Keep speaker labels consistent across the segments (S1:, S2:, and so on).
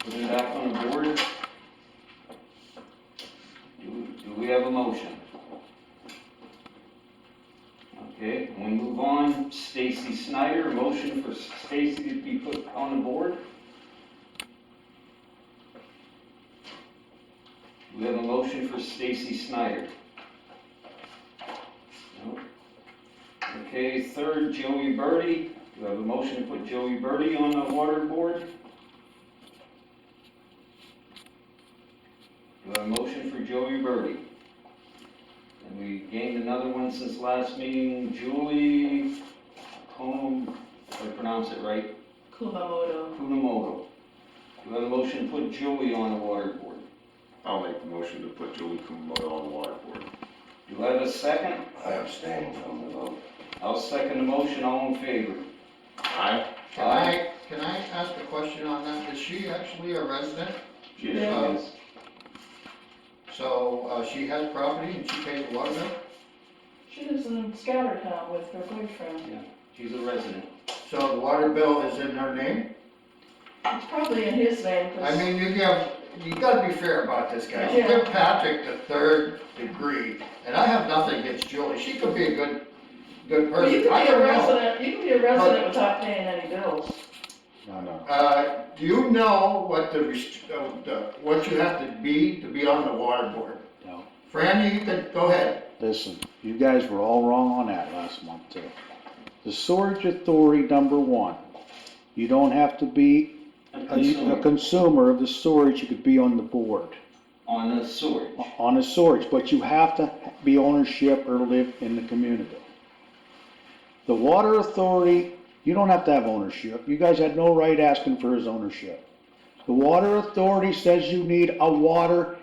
S1: put it up on the board. Do, we- do we have a motion? Okay, we move on, Stacy Snyder, motion for Stacy to be put on the board. Do We have a motion for Stacy Snyder. No. Okay, third, Joey Birdie, do we have a motion to put Joey Birdie on the water board? Do I have a motion for Joey Birdie? And we gained another one since last meeting, Julie Kum, if I pronounce it right,
S2: Kumamoto.
S1: Kunamoto. Do I have a motion to put Julie on the water board?
S3: I'll make the motion to put Julie Kumoto on the water board.
S1: Do I have a second?
S4: I abstain from the vote.
S1: I'll second the motion, all in favor.
S3: Aye?
S5: Can I, can I ask a question on that? Is she actually a resident?
S3: Yes.
S5: Yes. So, uh, she has property and she pays the water bill?
S2: She lives in Scattertown with her boyfriend.
S1: She's a resident.
S5: So the water bill is in her name?
S2: It's probably in his name,
S5: I
S2: 'cause-
S5: mean, you have, you gotta be fair about this guy. She
S2: Yeah.
S5: give Patrick the third degree, and I have nothing against Julie. She could be a good, good
S2: Well, you
S5: person.
S2: could
S5: I
S2: be
S5: don't
S2: a
S5: know.
S2: resident, you could be a resident without paying any bills.
S3: No, no.
S5: Uh, do you know what the, rest- uh, the- what you have to be to be on the water board?
S6: No.
S5: Fran, you could, go ahead.
S6: Listen, you guys were all wrong on that last month too. The storage authority, number one, you don't have to be
S1: A
S6: a, a
S1: consumer
S6: consumer of the storage, you could be on the board,
S1: on the sewer.
S6: on the storage, but you have to be ownership or live in the community. The water authority, you don't have to have ownership, you guys had no right asking for his ownership. The water authority says you need a water,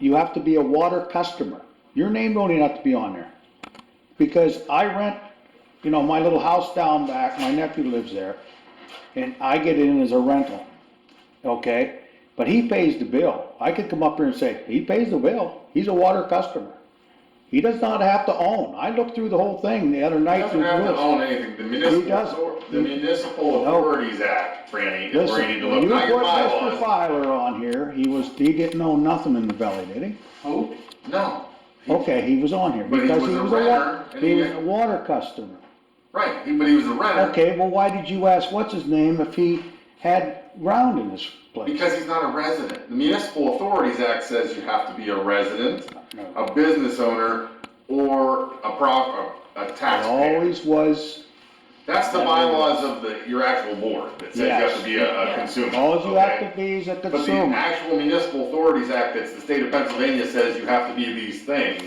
S6: you have to be a water customer, your name don't even have to be on there. Because I rent, you know, my little house down back, my nephew lives there, and I get in as a rental, okay? But he pays the bill, I could come up here and say, he pays the bill, he's a water customer. He does not have to own, I looked through the whole thing the other
S3: He
S6: night
S3: doesn't
S6: through the
S3: have to
S6: rules.
S3: own anything, the municipal,
S6: doesn't.
S3: author- the municipal
S6: No.
S3: authorities act, Franny, is where you need
S6: Listen,
S3: to
S6: when
S3: look,
S6: you
S3: not your
S6: put Mr.
S3: bylaws.
S6: Filer on here, he was, he didn't own nothing in the belly, did he?
S1: Who?
S3: No,
S6: Okay, he was on here,
S3: But he
S6: because
S3: was
S6: he
S3: a
S6: was a
S3: renter,
S6: wa,
S3: and
S6: he
S3: he-
S6: was a water customer.
S3: right, he- but he was a renter,
S6: Okay, well, why did you ask what's his name if he had ground in this place?
S3: because he's not a resident. The municipal authorities act says you have to be a resident,
S6: No.
S3: a business owner, or a prop, a a
S6: It
S3: taxpayer.
S6: always was,
S3: That's the bylaws of the, your actual board, that says you have to be a a
S2: Yes.
S3: consumer,
S6: all you
S3: okay?
S6: have to be is a
S3: But the
S6: consumer.
S3: actual Municipal Authorities Act, that's the state of Pennsylvania says you have to be these things.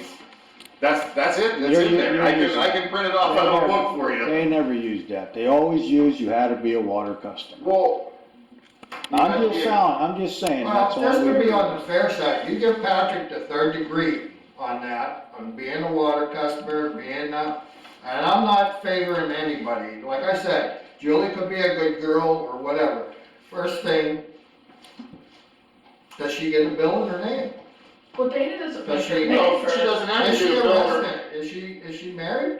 S3: That's, that's it, that's
S6: You're-
S3: in
S6: you're-
S3: there, I can,
S6: you're-
S3: I can print it off on a book for you.
S6: They never used that, they always used you had to be a water customer.
S3: Well. you
S6: I'm
S3: gotta
S6: just
S3: be-
S6: saying, I'm just saying, that's
S5: Well,
S6: all.
S5: just to
S6: we-
S5: be on the fair side, you give Patrick the third degree on that, on being a water customer, being a, and I'm not favoring anybody. Like I said, Julie could be a good girl or whatever. First thing, does she get a bill in her name?
S2: Well, Dana doesn't
S5: Does
S2: make her
S5: she-
S2: pay
S3: No,
S2: for
S3: she
S2: it.
S3: doesn't have
S5: Is
S3: to be
S5: she
S3: a
S5: a
S3: builder.
S5: resident? Is she, is she married?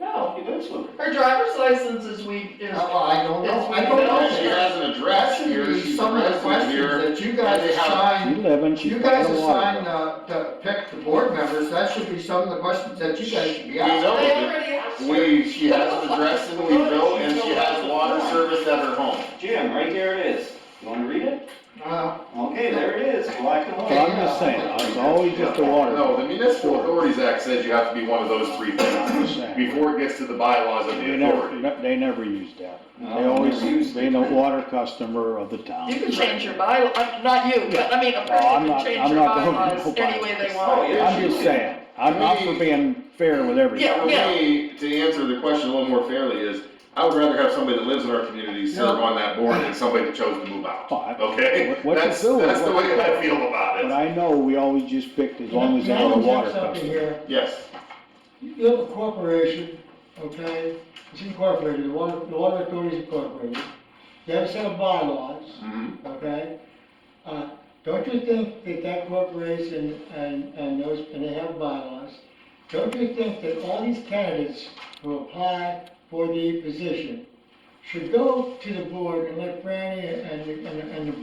S2: No,
S1: He lives with her.
S2: her driver's license is we, is,
S5: Oh, I don't know, I don't know.
S3: She has an
S5: That
S3: address
S5: should
S3: here,
S5: be
S3: she's a
S5: some of the
S3: resident
S5: questions
S3: here.
S5: that you guys
S3: they have-
S6: You
S5: assign,
S6: live in, she's
S5: you
S6: paying
S5: guys
S6: a water
S5: assign,
S6: bill.
S5: uh, to pick the board members, that should be some of the questions that you guys should be
S3: We
S5: asking.
S3: know
S2: they
S3: that
S2: already asked her.
S3: we, she has an address in Weeville, and she has water service at her home.
S1: Jim, right there it is. You wanna read it?
S5: Uh,
S1: Okay, there it is, black and
S6: Well,
S1: white.
S6: I'm just saying, it's always just a water.
S3: No, the
S6: bill.
S3: Municipal Authorities Act says you have to be one of those three
S6: I'm
S3: things,
S6: just saying.
S3: before it gets to the bylaws of
S6: They
S3: the authority.
S6: never, they never used that.
S1: No,
S6: They always
S1: never used
S6: used being a
S1: it.
S6: water customer of the town.
S2: You can change your bylaw, uh, not you, but I mean, a
S6: No, I'm
S2: person
S6: not-
S2: can change
S6: I'm
S2: your
S6: not going to
S2: bylaws
S6: no
S2: any way they
S6: bylaws.
S1: Oh,
S2: want.
S1: yeah.
S6: I'm just saying, I'm not for being fair with
S2: Yeah.
S6: everything.
S3: For me, to answer the question a little more fairly is, I would rather have somebody that lives in our community serve on that board than somebody that chose to move out.
S6: Fine.
S3: Okay?
S6: What- what you
S3: That's,
S6: do is
S3: that's the
S6: what
S3: way
S6: you
S3: that I
S6: do.
S3: feel about
S6: But
S3: it.
S6: I know we always just picked as long as they
S7: Can I
S6: were a water
S7: interject something
S6: customer.
S7: here?
S3: Yes.
S7: You have a corporation, okay, it's incorporated, the water, the water authority is incorporated. You have a set of bylaws,
S3: Mhm.
S7: okay? Uh, don't you think that that corporation and, and those, and they have bylaws, don't you think that all these candidates who apply for the position should go to the board and let Franny and, and, and the